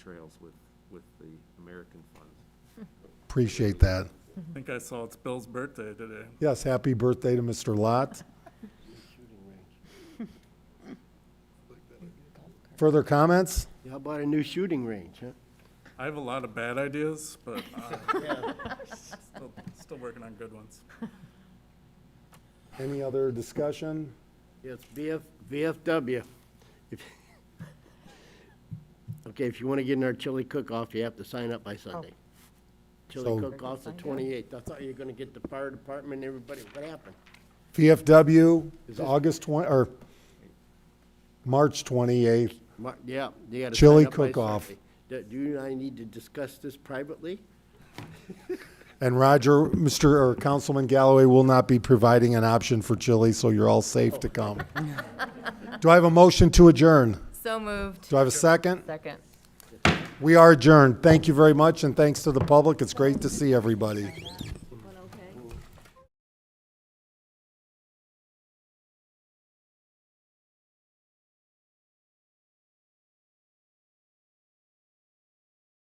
trails with, with the American funds. Appreciate that. I think I saw it's Bill's birthday today. Yes, happy birthday to Mr. Lot. Further comments? How about a new shooting range, huh? I have a lot of bad ideas, but uh, still- still working on good ones. Any other discussion? Yes, BF, VFW. If- Okay, if you want to get in our chili cook-off, you have to sign up by Sunday. So- Chili cook-off's the twenty-eighth. I thought you were going to get the fire department, and everybody, what happened? VFW Is is this- August 20, or March 28th. Mar- Yeah, you got to. Chili cook-off. Do do you and I need to discuss this privately? And Roger, Mr. or Councilman Galloway will not be providing an option for chili, so you're all safe to come. Do I have a motion to adjourn? So moved. Do I have a second? Second. We are adjourned. Thank you very much, and thanks to the public. It's great to see everybody.